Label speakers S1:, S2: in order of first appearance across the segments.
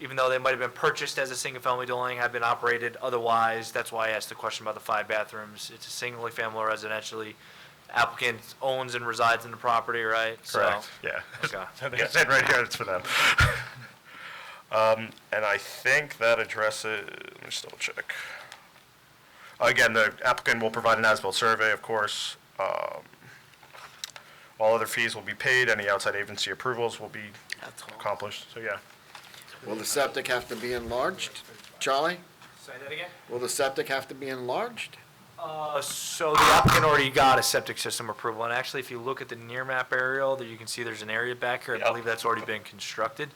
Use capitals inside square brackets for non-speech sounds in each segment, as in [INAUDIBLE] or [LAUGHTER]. S1: even though they might have been purchased as a single-family dwelling, have been operated otherwise. That's why I asked the question about the five bathrooms. It's a single-family residentially. Applicant owns and resides in the property, right? So-
S2: Correct, [LAUGHS] yeah.
S1: Okay.
S2: So They said right here, it's for them. [LAUGHS] Um, And I think that addresses, let me just double check. Again, the applicant will provide an as-built survey, of course. Um, All other fees will be paid, any outside agency approvals will be accomplished, so yeah.
S3: Will the septic have to be enlarged? Charlie,
S1: Say that again?
S3: will the septic have to be enlarged?
S1: Uh, so the applicant already got a septic system approval, and actually, if you look at the near map aerial, there you can see there's an area back here, I
S2: Yep.
S1: believe that's already been constructed.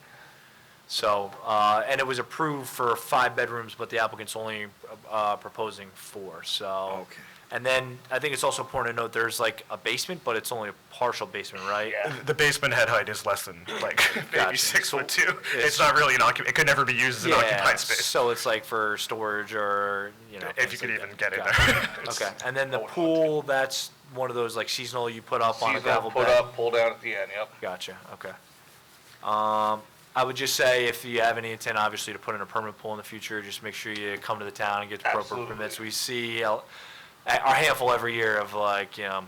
S1: So, uh, and it was approved for five bedrooms, but the applicant's only, uh, proposing four, so.
S3: Okay.
S1: And then, I think it's also important to note, there's like a basement, but it's only a partial basement, right?
S2: The basement head height is less than, like, [LAUGHS] maybe
S1: Gotcha.
S2: six
S1: So
S2: foot two.
S1: it's-
S2: It's not really an occup, it could never be used as
S1: [LAUGHS]
S2: an
S1: Yeah,
S2: occupied space,
S1: So it's like for storage or, you know.
S2: if
S1: things
S2: you could
S1: like
S2: even
S1: that.
S2: get in
S1: Gotcha.
S2: there. [LAUGHS]
S1: Okay, and then the pool, that's one of those like seasonal you put up on a
S4: Seasonal,
S1: gravel bed?
S4: put up, pull down at the end, yep.
S1: Gotcha, okay. Um, I would just say, if you have any intent, obviously, to put in a permanent pool in the future, just make sure you come to the town and get the appropriate
S4: Absolutely.
S1: permits. We see a- our handful every year of like, you know,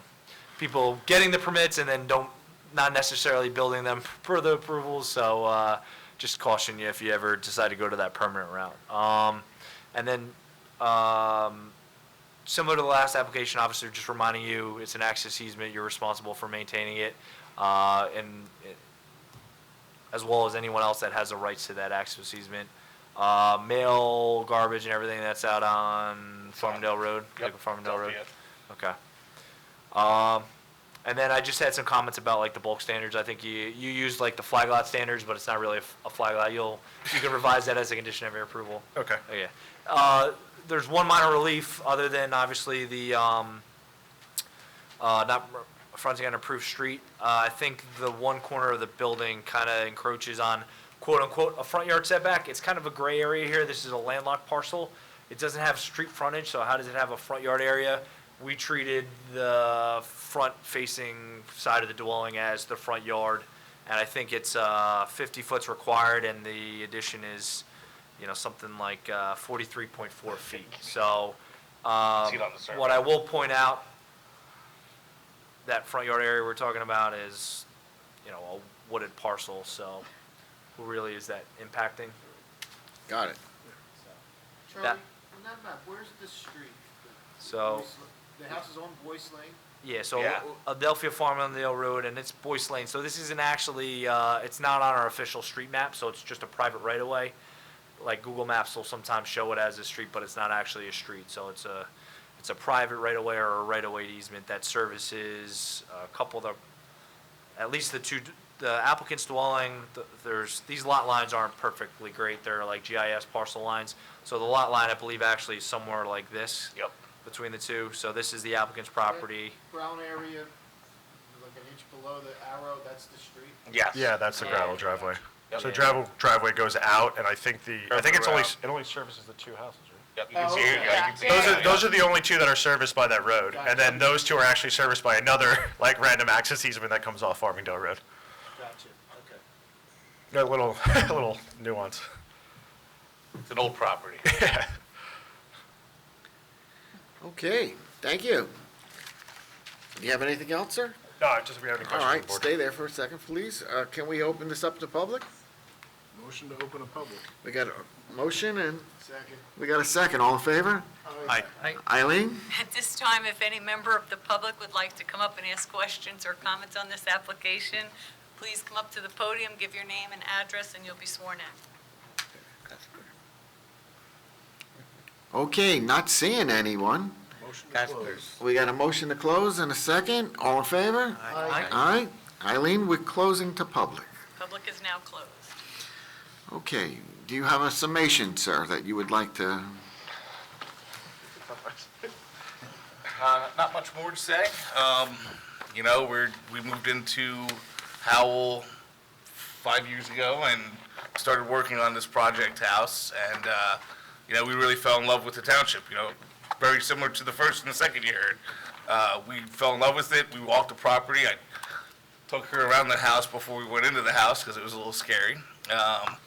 S1: people getting the permits and then don't, not necessarily building them [LAUGHS] per the approvals, so, uh, just caution you if you ever decide to go to that permanent route. Um, and then, um, similar to the last application, officer, just reminding you, it's an access easement, you're responsible for maintaining it, uh, and it- as well as anyone else that has the rights to that access easement. Uh, mail, garbage, and everything that's out on Farmingdale Road,
S4: Yep,
S1: like Farmingdale
S4: that'll
S1: Road?
S4: be it.
S1: Okay. Um, and then I just had some comments about like the bulk standards. I think you, you used like the flag lot standards, but it's not really a, f- a flag lot. You'll, you can revise that as a condition of your approval.
S2: Okay.
S1: Okay. Uh, there's one minor relief, other than obviously the, um, uh, not r- fronting on approved street. Uh, I think the one corner of the building kind of encroaches on quote-unquote a front yard setback. It's kind of a gray area here. This is a landlocked parcel. It doesn't have street frontage, so how does it have a front yard area? We treated the front-facing side of the dwelling as the front yard, and I think it's, uh, fifty foot's required, and the addition is, you know, something like, uh, forty-three point four feet. So, um,
S4: See it on the survey.
S1: what I will point out that front yard area we're talking about is, you know, a wooded parcel, so who really is that impacting?
S3: Got it.
S5: Charlie,
S1: That-
S5: on that map, where's the street?
S1: So,
S5: Boyce La- The house is on Boyce Lane?
S1: yeah, so uh,
S4: Yeah.
S1: Adelphia Farm on Dale Road, and it's Boyce Lane, so this isn't actually, uh, it's not on our official street map, so it's just a private right-of-way. Like, Google Maps will sometimes show it as a street, but it's not actually a street, so it's a, it's a private right-of-way or a right-of-way easement that services a couple of the at least the two, the applicant's dwelling, th- there's, these lot lines aren't perfectly great, they're like GIS parcel lines. So the lot line, I believe, actually is somewhere like this.
S4: Yep.
S1: Between the two, so this is the applicant's property.
S5: Brown area, like an inch below the arrow, that's the street.
S4: Yes.
S2: Yeah, that's the
S1: Yeah.
S2: gravel driveway.
S4: Yep.
S2: So gravel driveway goes out, and I think the, I think it's only,
S4: Curve
S2: it only services the two houses, right?
S4: Yep, you can
S5: Oh,
S4: see it.
S5: okay.
S4: yeah, you can see
S2: Those
S4: it.
S2: are, those are the only two that are serviced by that road, and then those two are actually serviced by another, [LAUGHS] like, random access easement that comes off Farmingdale Road.
S5: Gotcha, okay.
S2: A little, [LAUGHS] little [LAUGHS] nuance.
S4: It's an old property.
S3: Okay, thank you. Do you have anything else, sir?
S2: No, I just, we have any
S3: All
S2: questions on the
S3: right,
S2: board?
S3: stay there for a second, please. Uh, can we open this up to public?
S5: Motion to open a public.
S3: We got a motion and
S5: Second.
S3: we got a second. All in favor?
S5: Aye.
S3: Eileen?
S6: At this time, if any member of the public would like to come up and ask questions or comments on this application, please come up to the podium, give your name and address, and you'll be sworn in.
S3: Okay, not seeing anyone. We got a motion to close and a second. All in favor?
S1: Aye.
S3: Aye. Eileen, we're closing to public.
S6: Public is now closed.
S3: Okay, do you have a summation, sir, that you would like to?
S4: Uh, Not much more to say. Um, You know, we're, we moved into Howell five years ago and started working on this project house. And, uh, you know, we really fell in love with the township, you know, very similar to the first and the second year. Uh, We fell in love with it. We walked the property. I took her around the house before we went into the house because it was a little scary. Um,